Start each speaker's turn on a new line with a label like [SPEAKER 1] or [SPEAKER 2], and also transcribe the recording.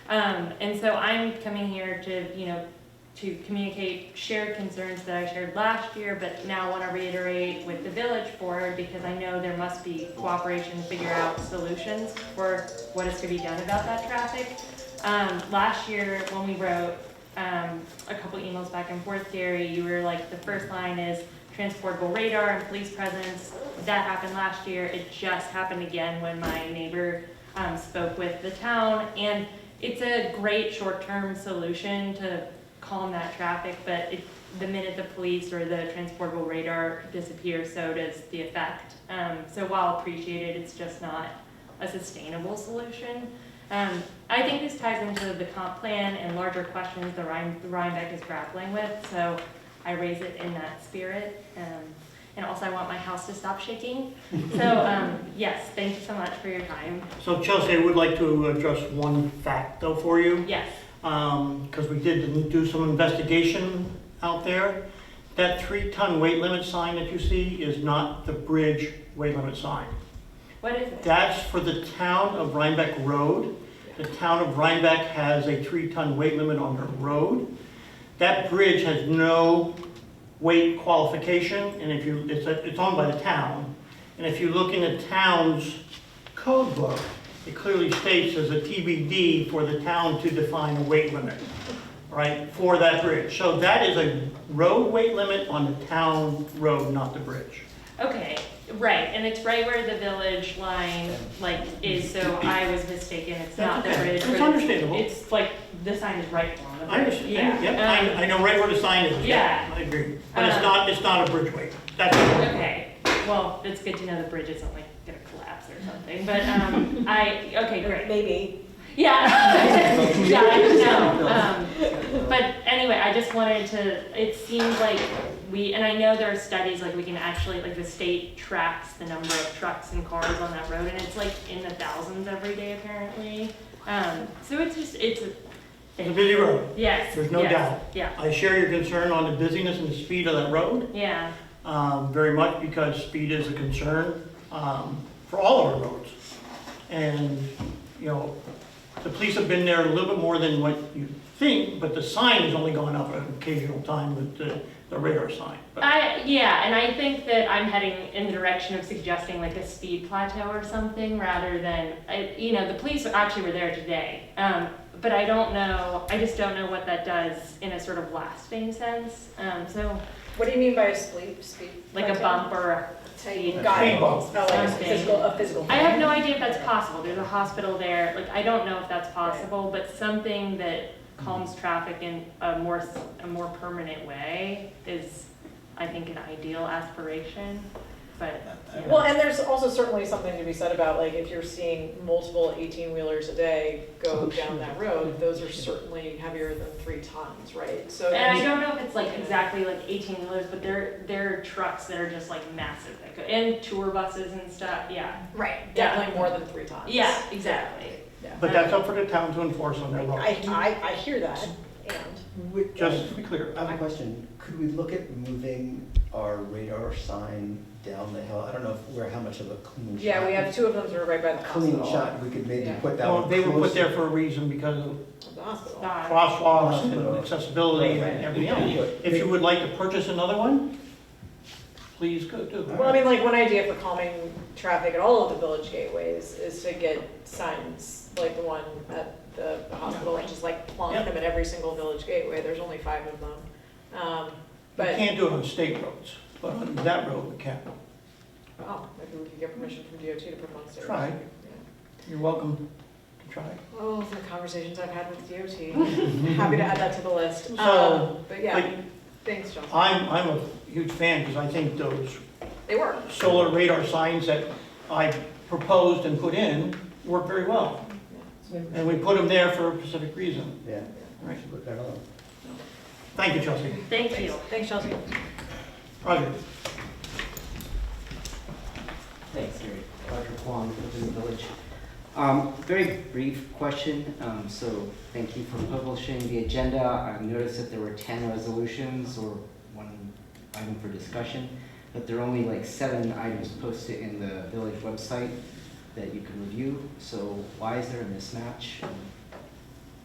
[SPEAKER 1] Um, and so I'm coming here to, you know, to communicate shared concerns that I shared last year, but now want to reiterate with the village board because I know there must be cooperation to figure out solutions for what is to be done about that traffic. Um, last year, when we wrote, um, a couple emails back and forth, Gary, you were like, the first line is transportable radar and police presence. That happened last year. It just happened again when my neighbor, um, spoke with the town. And it's a great short-term solution to calm that traffic, but it, the minute the police or the transportable radar disappears, so does the effect. Um, so while appreciated, it's just not a sustainable solution. Um, I think this ties into the comp plan and larger questions the Rhine, Rhinebeck is grappling with, so I raise it in that spirit. Um, and also I want my house to stop shaking. So, um, yes, thank you so much for your time.
[SPEAKER 2] So Chelsea, I would like to address one fact though for you,
[SPEAKER 1] Yes.
[SPEAKER 2] because we did do some investigation out there. That three-ton weight limit sign that you see is not the bridge weight limit sign.
[SPEAKER 1] What is it?
[SPEAKER 2] That's for the town of Rhinebeck Road. The town of Rhinebeck has a three-ton weight limit on their road. That bridge has no weight qualification, and if you, it's, it's owned by the town. And if you look in the town's code book, it clearly states as a TBD for the town to define a weight limit, right, for that bridge. So that is a road weight limit on the town road, not the bridge.
[SPEAKER 1] Okay, right, and it's right where the village line, like, is, so I was mistaken, it's not the
[SPEAKER 2] That's okay.
[SPEAKER 1] bridge.
[SPEAKER 2] It's
[SPEAKER 1] but
[SPEAKER 2] understandable.
[SPEAKER 1] It's like, the sign is right on the bridge.
[SPEAKER 2] I understand,
[SPEAKER 1] Yeah,
[SPEAKER 2] yep, I, I know right where the sign is, yeah, I agree. But it's
[SPEAKER 1] Um,
[SPEAKER 2] not, it's not a bridgeway, that's.
[SPEAKER 1] um, Okay, well, it's good to know the bridge isn't like gonna collapse or something, but, um, I, okay, great.
[SPEAKER 3] Maybe.
[SPEAKER 1] Yeah. yeah, I know. Um, but anyway, I just wanted to, it seems like we, and I know there are studies, like we can actually, like the state tracks the number of trucks and cars on that road, and it's like in the thousands every day apparently. Um, so it's just, it's a
[SPEAKER 2] It's a
[SPEAKER 1] thing.
[SPEAKER 2] busy road,
[SPEAKER 1] Yes.
[SPEAKER 2] There's no
[SPEAKER 1] yes,
[SPEAKER 2] doubt.
[SPEAKER 1] Yeah,
[SPEAKER 2] I share your concern on the busyness and the speed of that road,
[SPEAKER 1] yeah,
[SPEAKER 2] um, very much because speed is a concern, um, for all of our roads. And, you know, the police have been there a little bit more than what you think, but the sign has only gone up an occasional time with the, the radar sign. But
[SPEAKER 1] I, yeah, and I think that I'm heading in the direction of suggesting like a speed plateau or something rather than, I- you know, the police actually were there today. Um, but I don't know, I just don't know what that does in a sort of lasting sense. Um, so
[SPEAKER 3] What do you mean by a sleep, sleep?
[SPEAKER 1] like a bump or a,
[SPEAKER 3] Speed. Got it.
[SPEAKER 2] Speed bump.
[SPEAKER 3] Not Oh, like a
[SPEAKER 1] Something.
[SPEAKER 3] physical, a physical.
[SPEAKER 1] I have no idea if that's possible. There's a hospital there. Like, I don't know if that's possible, but something that calms traffic in a more, s- a more permanent way is, I think, an ideal aspiration, but. yeah.
[SPEAKER 3] Well, and there's also certainly something to be said about, like, if you're seeing multiple eighteen-wheelers a day go down that road, those are certainly heavier than three tons, right? So,
[SPEAKER 1] And I don't know if it's like exactly like eighteen wheelers, but they're they're trucks that are just like massive that go and tour buses and stuff. Yeah.
[SPEAKER 3] right, definitely more than three tons.
[SPEAKER 1] Yeah, exactly.
[SPEAKER 3] Yeah.
[SPEAKER 2] But that's up for the town to enforce on their road,
[SPEAKER 3] I, I, I hear that, and,
[SPEAKER 4] Would-
[SPEAKER 2] just to be clear.
[SPEAKER 4] I have a question. Could we look at moving our radar sign down the hill? I don't know if we're, how much of a clean shot.
[SPEAKER 3] yeah, we have two of them that are right by the hospital.
[SPEAKER 4] Clean shot, we could maybe
[SPEAKER 3] Yeah.
[SPEAKER 4] put that
[SPEAKER 2] Well,
[SPEAKER 4] one
[SPEAKER 2] they
[SPEAKER 4] closer.
[SPEAKER 2] were put there for a reason because of
[SPEAKER 3] Of The hospital.
[SPEAKER 1] God.
[SPEAKER 2] crosswalks and accessibility and everything else. If you would like to purchase another one, please go do
[SPEAKER 3] Well, I
[SPEAKER 2] it.
[SPEAKER 3] mean, like, one idea for calming traffic at all of the village gateways is to get signs, like the one at the hospital, which is like plonk them at every single village gateway, there's only five of them. Um,
[SPEAKER 2] You
[SPEAKER 3] But,
[SPEAKER 2] can't do it on state roads, but on that road we can.
[SPEAKER 3] oh, maybe we could get permission from DOT to put them on stage.
[SPEAKER 2] Try.
[SPEAKER 3] Yeah.
[SPEAKER 2] You're welcome to try.
[SPEAKER 3] Oh, the conversations I've had with DOT, happy to add that to the list.
[SPEAKER 2] So,
[SPEAKER 3] Um, But yeah,
[SPEAKER 2] like-
[SPEAKER 3] thanks, John.
[SPEAKER 2] I'm, I'm a huge fan because I think those
[SPEAKER 3] They work.
[SPEAKER 2] solar radar signs that I proposed and put in work very well. And we put them there for a specific reason.
[SPEAKER 4] Yeah, we
[SPEAKER 2] Right.
[SPEAKER 4] should put that on.
[SPEAKER 2] Thank you, Chelsea.
[SPEAKER 1] Thank you.
[SPEAKER 3] Thanks, Chelsea.
[SPEAKER 2] Roger.
[SPEAKER 5] Thanks, Gary. Roger Kwong, Woodland Village. Um, Very brief question, um, so thank you for publishing the agenda. I noticed that there were 10 resolutions or one item for discussion, but there are only like seven items posted in the village website that you can review. So why is there a mismatch? And